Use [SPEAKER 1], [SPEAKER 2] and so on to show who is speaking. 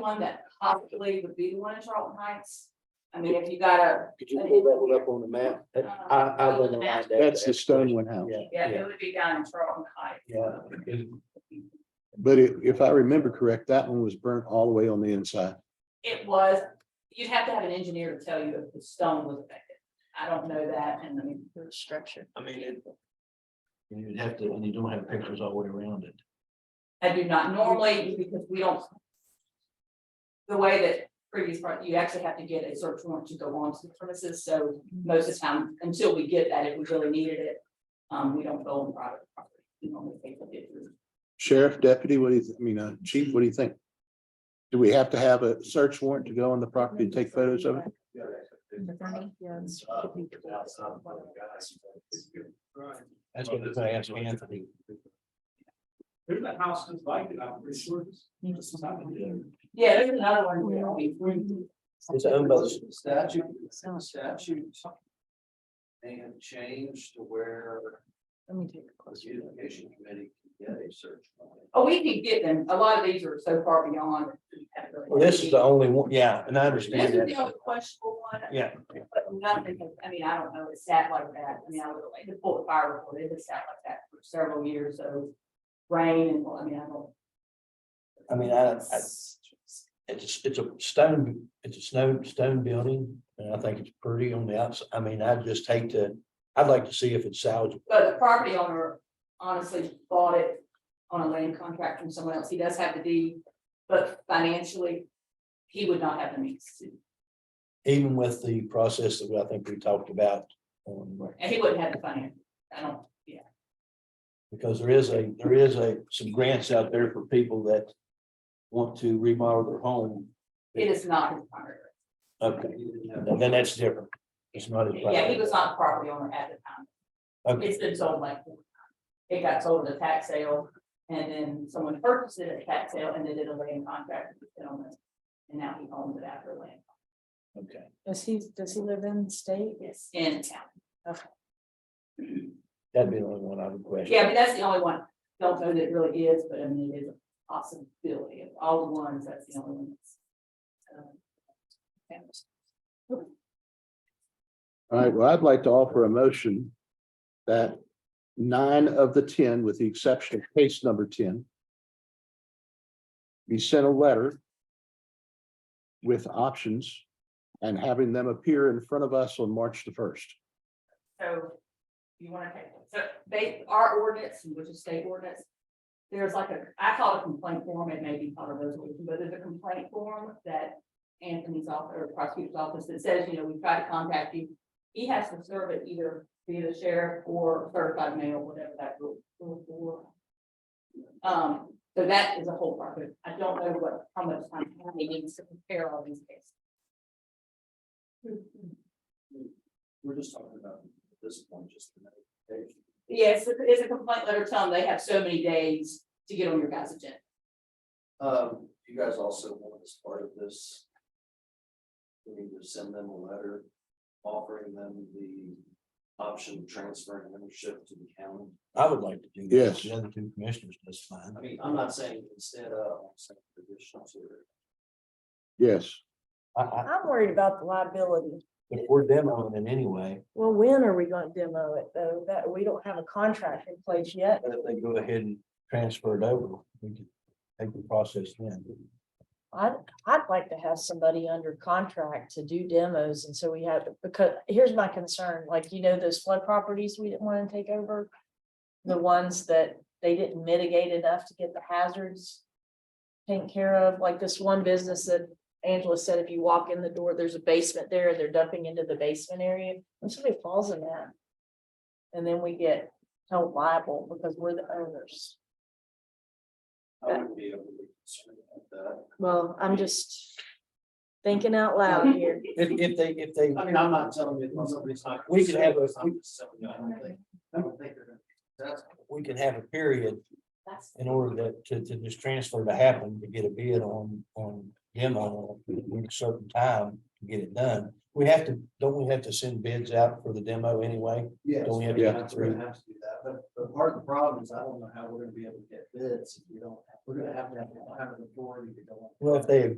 [SPEAKER 1] one that possibly would be the one in Charlton Heights. I mean, if you gotta,
[SPEAKER 2] Could you pull that one up on the map?
[SPEAKER 3] I, I wouldn't mind that.
[SPEAKER 4] That's the Stoneman House.
[SPEAKER 3] Uh, Yeah,
[SPEAKER 1] yeah, it would be down in Charlton Heights.
[SPEAKER 3] yeah.
[SPEAKER 4] But i- if I remember correct, that one was burnt all the way on the inside.
[SPEAKER 1] It was, you'd have to have an engineer to tell you if the stone was affected. I don't know that and I mean. The structure.
[SPEAKER 3] I mean, it. You'd have to, and you don't have pictures all the way around it.
[SPEAKER 1] I do not normally, because we don't. The way that previous part, you actually have to get a search warrant to go onto the premises, so most of the time, until we get that, if we really needed it. Um, we don't go on private property, we normally take the pictures.
[SPEAKER 4] Sheriff, deputy, what do you, th- I mean, uh, chief, what do you think? Do we have to have a search warrant to go on the property to take photos of it?
[SPEAKER 3] That's what I asked Anthony.
[SPEAKER 5] There's a house that's like it, I'm pretty sure.
[SPEAKER 1] Yeah, there's another one where we- we-
[SPEAKER 3] It's owned by the-
[SPEAKER 5] Statute, statute. They have changed to where
[SPEAKER 6] Let me take a
[SPEAKER 5] the
[SPEAKER 6] closer.
[SPEAKER 5] beautification committee can get a search. warrant.
[SPEAKER 1] oh, we can get them, a lot of these are so far beyond. we haven't really-
[SPEAKER 3] Well, This is the only one, yeah, and I
[SPEAKER 1] This
[SPEAKER 3] understand
[SPEAKER 1] is the
[SPEAKER 3] that.
[SPEAKER 1] only questionable one.
[SPEAKER 3] Yeah,
[SPEAKER 1] But nothing, has- I mean, I don't know, it sat like that, I mean, I would like, the Fort Fire report, it has sat like that for several years, so. Rain and, well, I mean, I don't.
[SPEAKER 3] I mean, I, I, it's, it's a stone, it's a stone, stone building, and I think it's pretty on the outside. I mean, I'd just hate to, I'd like to see if it's salvageable.
[SPEAKER 1] But the property owner honestly bought it on a land contract from someone else, he does have the deed, but financially. He would not have the means to,
[SPEAKER 3] even with the process that I think we talked about. um, on
[SPEAKER 1] and he wouldn't have the finance, I don't,
[SPEAKER 3] because there is a, there is a, some grants out there for people that want to remodel their home.
[SPEAKER 1] it is not his primary.
[SPEAKER 3] Okay, and then that's different. It's not. as
[SPEAKER 1] Yeah, he
[SPEAKER 3] bad.
[SPEAKER 1] was not the property owner at the time.
[SPEAKER 3] Okay,
[SPEAKER 1] It's been sold like. four times. It got sold at a tax sale and then someone purchased it at a tax sale and they did a land contract with the owner. And now he owns it after land.
[SPEAKER 3] okay.
[SPEAKER 6] Does he, does he live in state?
[SPEAKER 1] Yes. In town.
[SPEAKER 3] That'd be the only one I would question.
[SPEAKER 1] Yeah, I mean, that's the only one. Don't know that it really is, but I mean, it is a possibility of all the ones, that's the only one. that's, um, famous.
[SPEAKER 4] All right, well, I'd like to offer a motion that nine of the ten, with the exception of case number ten, be sent a letter with options and having them appear in front of us on March the first.
[SPEAKER 1] So you wanna take, so they, our ordinance, which is state ordinance. There's like a, I call it a complaint form, it may be part of resolution, but there's a complaint form that Anthony's office or prosecutor's office that says, you know, we try to contact you. He has to serve it either via the sheriff or certified mail, whatever that rule, rule for. Um, so that is a whole part, but I don't know what, how much time he needs to prepare all these cases.
[SPEAKER 5] We're just talking about at this point, just. the notification.
[SPEAKER 1] Yes, it's a complaint letter telling them they have so many days to get on your guys' agenda.
[SPEAKER 5] Um, you guys also want as part of this. We need to send them a letter offering them the option of transferring membership to the county.
[SPEAKER 3] I would like to do that.
[SPEAKER 4] Yes.
[SPEAKER 3] The other two commissioners, that's fine.
[SPEAKER 5] I mean, I'm not saying instead of, I'm saying additional to it.
[SPEAKER 4] Yes,
[SPEAKER 3] I, I,
[SPEAKER 6] I'm worried about the liability.
[SPEAKER 3] if we're demoing it anyway,
[SPEAKER 6] Well, when are we gonna demo it though? That, we don't have a contract in place yet.
[SPEAKER 3] but if they go ahead and transfer it over, we could take the process then.
[SPEAKER 6] I'd, I'd like to have somebody under contract to do demos, and so we have, because, here's my concern, like, you know, those flood properties we didn't wanna take over? The ones that they didn't mitigate enough to get the hazards taken care of, like this one business that Angela said, if you walk in the door, there's a basement there, and they're dumping into the basement area, when somebody falls in that. And then we get held liable because we're the owners,
[SPEAKER 5] I wouldn't be overly concerned about
[SPEAKER 6] well, I'm just thinking out loud here.
[SPEAKER 3] If, if they, if they,
[SPEAKER 5] that. I mean, I'm not telling you that somebody's not.
[SPEAKER 3] We could have a-
[SPEAKER 5] I'm just telling you, I don't think, I don't think they're gonna. That's.
[SPEAKER 3] we can have a period
[SPEAKER 1] That's,
[SPEAKER 3] in order that- to, to this transfer to happen, to get a bid on, on demo in a certain time to get it done. We have to, don't we have to send bids out for the demo anyway?
[SPEAKER 5] Yes,
[SPEAKER 3] Don't we
[SPEAKER 5] we're
[SPEAKER 3] have
[SPEAKER 5] gonna
[SPEAKER 3] to
[SPEAKER 5] have
[SPEAKER 3] get
[SPEAKER 5] we're
[SPEAKER 3] through?
[SPEAKER 5] gonna have to do that, but, but part of the problem is I don't know how we're gonna be able to get bids if we don't, we're gonna have to have, have an authority to go on.
[SPEAKER 3] Well, if they